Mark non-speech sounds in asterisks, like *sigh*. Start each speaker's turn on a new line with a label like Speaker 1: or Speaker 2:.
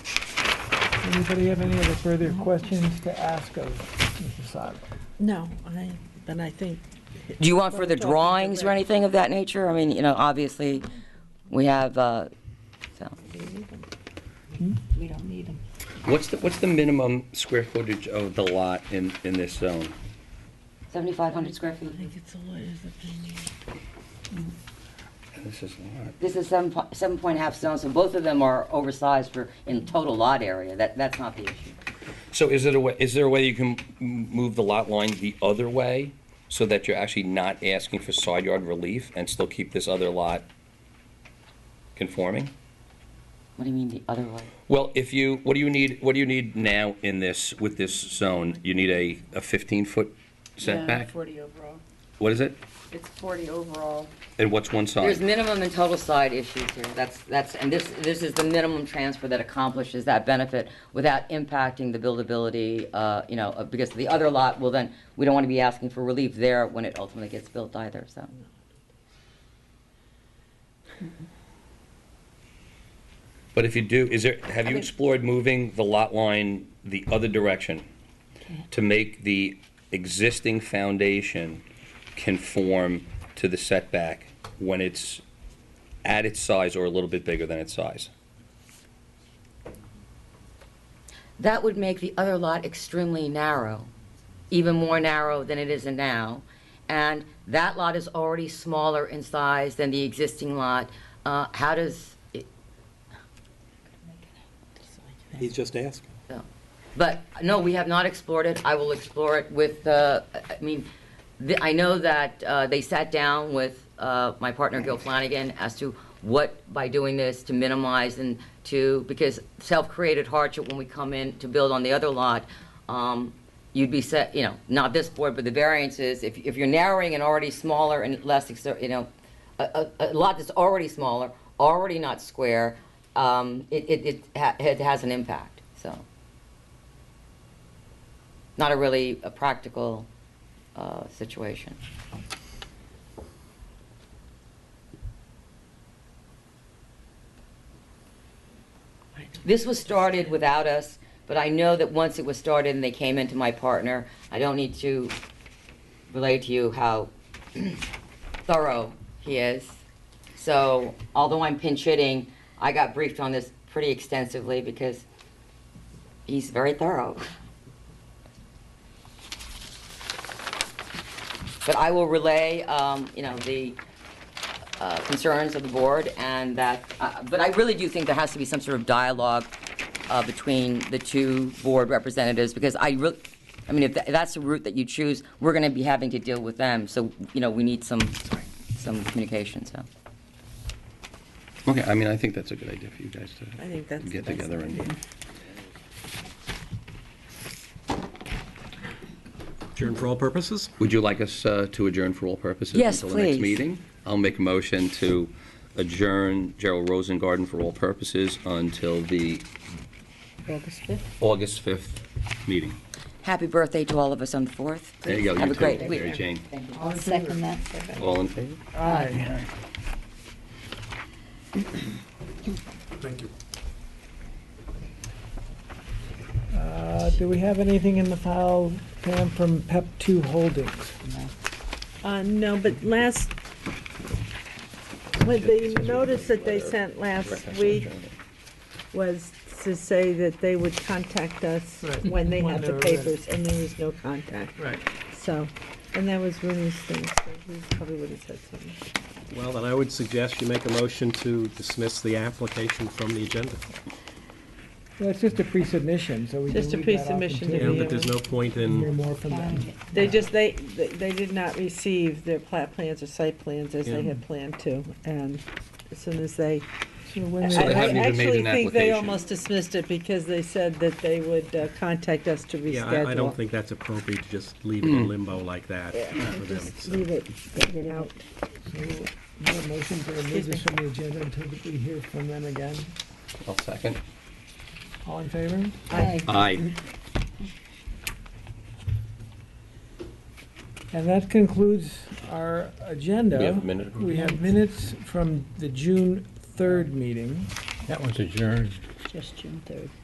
Speaker 1: Anybody have any other further questions to ask of Mrs. Sodler?
Speaker 2: No, I, but I think,
Speaker 3: Do you want further drawings or anything of that nature? I mean, you know, obviously, we have, uh, so,
Speaker 1: Hmm?
Speaker 4: We don't need them.
Speaker 5: What's the, what's the minimum square footage of the lot in, in this zone?
Speaker 3: 7,500 square
Speaker 2: I
Speaker 3: feet.
Speaker 2: think it's a lawyer's opinion.
Speaker 5: This is a lot.
Speaker 3: This is seven, po- seven point half stone, so both of them are oversized for, in total lot area. That, that's not the issue.
Speaker 5: So is it a way, is there a way you can m- move the lot line the other way so that you're actually not asking for side yard relief and still keep this other lot conforming?
Speaker 3: What do you mean the other way?
Speaker 5: Well, if you, what do you need, what do you need now in this, with this zone? You need a, a 15-foot setback?
Speaker 4: Forty overall.
Speaker 5: What is it?
Speaker 4: It's forty overall.
Speaker 5: And what's one
Speaker 3: There's
Speaker 5: side?
Speaker 3: minimum and total side issues here. That's, that's, and this, this is the minimum transfer that accomplishes that benefit without impacting the buildability, uh, you know, uh, because the other lot will then, we don't want to be asking for relief there when it ultimately gets built either, so.
Speaker 5: But if you do, is there, have you
Speaker 3: mean-
Speaker 5: explored moving the lot line the other direction? To make the existing foundation conform to the setback when it's at its size or a little bit bigger than its size?
Speaker 3: That would make the other lot extremely narrow, even more narrow than it is now. And that lot is already smaller in size than the existing lot. Uh, How does, it-
Speaker 6: He's just asking.
Speaker 3: no. but, no, we have not explored it. I will explore it with, uh, I mean, the- I know that uh, they sat down with uh, my partner Gil Flanagan as to what, by doing this, to minimize and to, because self-created hardship when we come in to build on the other lot, um, you'd be set, you know, not this board, but the variances, if, if you're narrowing an already smaller and less, exter- you know, a, a, a lot that's already smaller, already not square, um, it, it, it ha- it has an impact, so. Not a really a practical, uh, situation. This was started without us, but I know that once it was started and they came into my partner, I don't need to relay to you how *clears throat* thorough he is. So although I'm pinch hitting, I got briefed on this pretty extensively because he's very thorough. *laughs* But I will relay, um, you know, the uh, concerns of the board and that, uh, but I really do think there has to be some sort of dialogue uh, between the two board representatives because I really, I mean, if tha- that's the route that you choose, we're going to be having to deal with them. So, you know, we need some, some communication, so.
Speaker 5: Okay, I mean, I think that's a good idea for you guys
Speaker 2: I think that's.
Speaker 5: Get
Speaker 2: that's-
Speaker 5: together and-
Speaker 6: Adjourn for all purposes?
Speaker 5: Would you like us uh, to adjourn for all purposes?
Speaker 3: Yes,
Speaker 5: Until the next
Speaker 3: please.
Speaker 5: meeting? I'll make a motion to adjourn Gerald Rosengarten for all purposes until the
Speaker 4: August fifth.
Speaker 5: August 5th meeting.
Speaker 3: Happy birthday to all of us on the 4th.
Speaker 5: There you go.
Speaker 3: Have
Speaker 5: you
Speaker 3: a great
Speaker 5: too,
Speaker 3: week.
Speaker 5: Mary Jane.
Speaker 3: Thank you.
Speaker 1: All in favor?
Speaker 4: Second that.
Speaker 5: All in favor?
Speaker 1: Aye.
Speaker 6: Thank you.
Speaker 1: Uh, Do we have anything in the file, Pam, from PEP 2 Holdings?
Speaker 2: Uh, no, but last, with the notice that they sent last week was to say that they would contact us
Speaker 1: Right.
Speaker 2: when they
Speaker 1: When
Speaker 2: had
Speaker 1: they
Speaker 2: the
Speaker 1: were ready.
Speaker 2: papers, and there was no contact.
Speaker 1: Right.
Speaker 2: So, and that was one of those things, so we probably would have said something.
Speaker 6: Well, then I would suggest you make a motion to dismiss the application from the agenda.
Speaker 1: Well, it's just a pre-submission, so we can
Speaker 2: Just a
Speaker 1: leave that off
Speaker 2: pre-submission to
Speaker 1: until
Speaker 6: Yeah,
Speaker 2: be-
Speaker 1: we
Speaker 6: but there's no point
Speaker 1: Hear
Speaker 6: in,
Speaker 1: more from them.
Speaker 2: They just, they, they they did not receive their plat plans or site plans as they
Speaker 6: Yeah.
Speaker 2: had planned to, and as soon as they,
Speaker 1: So when
Speaker 2: I
Speaker 5: So they
Speaker 1: they-
Speaker 5: haven't
Speaker 2: I
Speaker 5: even made
Speaker 2: actually
Speaker 5: an
Speaker 2: think they
Speaker 5: application.
Speaker 2: almost dismissed it because they said that they would uh, contact us to reschedule.
Speaker 6: yeah, I- I don't think that's appropriate to just leave it in limbo like that for them.
Speaker 2: Just
Speaker 6: so.
Speaker 2: leave it out.
Speaker 1: Do you have a motion to remove this from the agenda until we hear from them again?
Speaker 5: I'll second.
Speaker 1: All in favor?
Speaker 5: Aye.
Speaker 1: And that concludes our agenda.
Speaker 5: We have a minute.
Speaker 1: We have minutes from the June 3rd meeting.
Speaker 7: That was adjourned.
Speaker 4: Just June third.